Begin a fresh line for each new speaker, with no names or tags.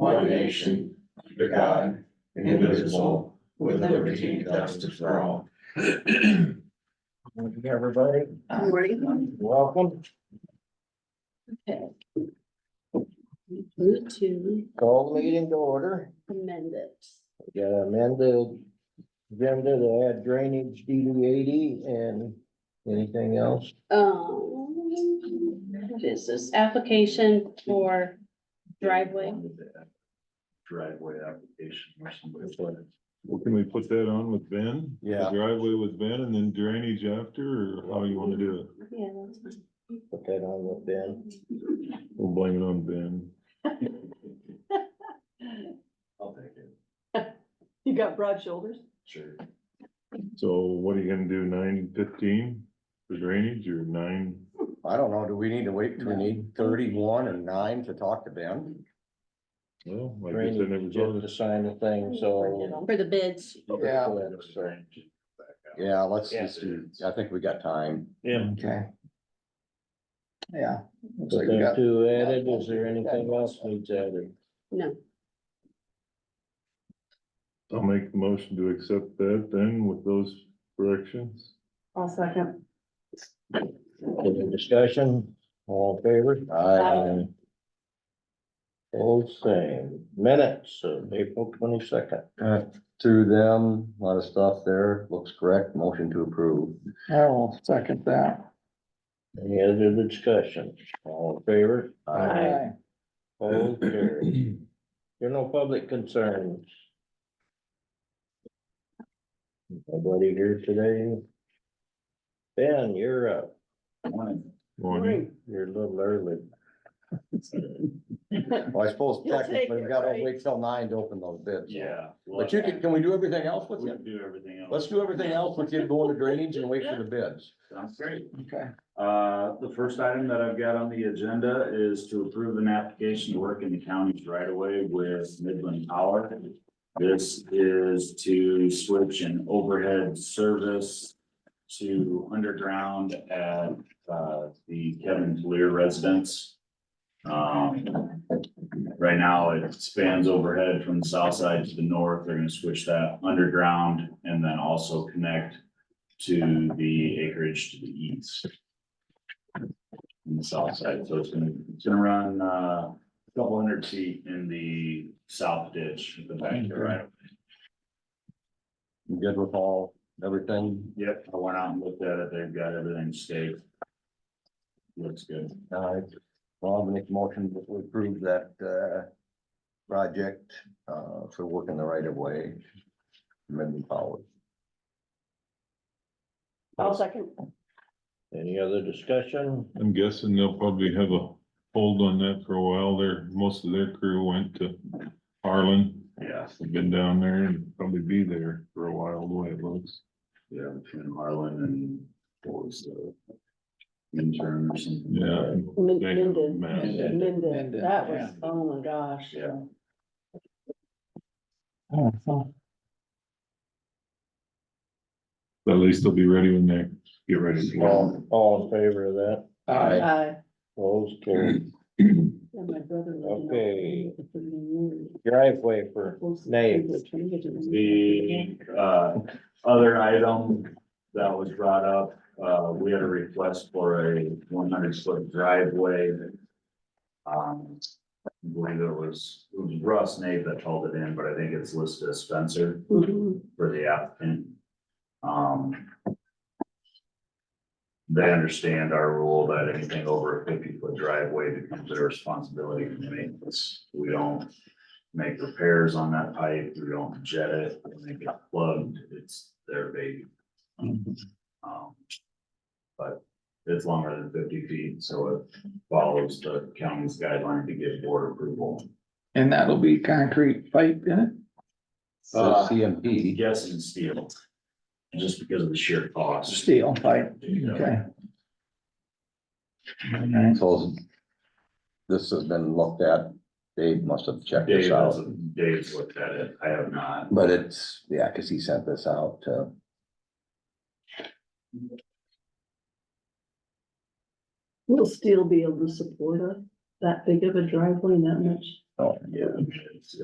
one nation, under God, indivisible, with liberty and justice for all.
Thank you, Everybody,
Morning.
welcome.
Okay. Need to
Call the meeting to order.
amend it.
We Got amended agenda to add drainage DD eighty and anything else?
Um, what is this application for driveway?
Driveway application or something.
Well, can we put that on with Ben? The
Yeah.
Driveway with Ben and then drainage after, or how you wanna do it?
Yeah, that's fine.
Put that on with Ben.
We'll blame it on Ben.
I'll take it,
You got broad shoulders?
sure.
So what are you gonna do, nine fifteen for drainage or nine?
I don't know, do we need to wait till we need thirty-one and nine to talk to Ben?
Well, like I said,
Drainage,
never
just to sign the thing, so.
For the bids,
Yeah.
Sorry.
Yeah, let's
Yeah.
just, do- I think we got time.
Yeah.
Okay. Yeah. looks
Put
like we
them
got-
two added, is there anything else needs added?
no,
I'll make the motion to accept that then with those corrections.
I'll second.
Any discussion, all in favor?
Aye.
All same, minutes of April twenty-second.
Uh, Through them, a lot of stuff there, looks correct, motion to approve.
I will second that.
Any other discussion? All in favor?
Aye.
All carried. There are no public concerns. Nobody here today? Ben, you're up.
Morning.
You're a little early.
Well, I suppose
You'll take
technically
it,
we gotta
right?
wait till nine to open those bids.
Yeah.
But you can, can we do everything else with
We
you?
can do everything else.
Let's do everything else with you going to drainage and wait for the bids.
Sounds great.
Okay.
Uh, the first item that I've got on the agenda is to approve an application to work in the county's right of way with Midland Power. This is to switch an overhead service to underground at, uh, the Kevin Lear residence. Um, right now it spans overhead from the south side to the north. They're gonna switch that underground and then also connect to the acreage to the east. On the south side, so it's gonna, it's gonna run, uh, a couple hundred feet in the south ditch, at the back here, right?
You good with all, everything?
Yep, I went out and looked at it, they've got everything staked. Looks good.
Uh, Rob, make a motion that we approve that, uh, project, uh, for working the right of way. Amendment Powers.
I'll second.
Any other discussion?
I'm guessing they'll probably have a hold on that for a while. Their, most of their crew went to Harlan.
Yeah,
They've been down there and probably be there for a while, the way it looks.
yeah, between Harlan and what was the intern or something.
Yeah. They have a
Mended,
mess.
mended,
Mended,
that was, oh my gosh.
Yeah.
Oh, so-
But At least they'll be ready when they get ready. to go.
All, all in favor of that?
Aye.
I,
Opposed, carried.
and my brother.
Okay. Driveway for names.
The uh other item that was brought up, uh we had a request for a one hundred foot driveway. Um, I believe it was, it was Russ Nate that called it in, but I think it's listed as Spencer for the applicant. Um. They understand our rule that anything over a fifty foot driveway becomes their responsibility for maintenance. We don't. Make repairs on that pipe, we don't jet it, when they get plugged, it's their baby. Um. But it's longer than fifty feet, so it follows the county's guideline to get board approval.
And that'll be concrete pipe in it?
So
Uh,
CMP.
Yes, and steel. Just because of the sheer cost.
Steel pipe, okay. Alright.
So this has been looked at, Dave must have checked this
Dave, has-
out,
Dave's looked at it, I have not.
but it's, yeah, cause he sent this out to.
Will steel be able to support a, that big of a driveway and that much?
Oh,
Yeah. it's-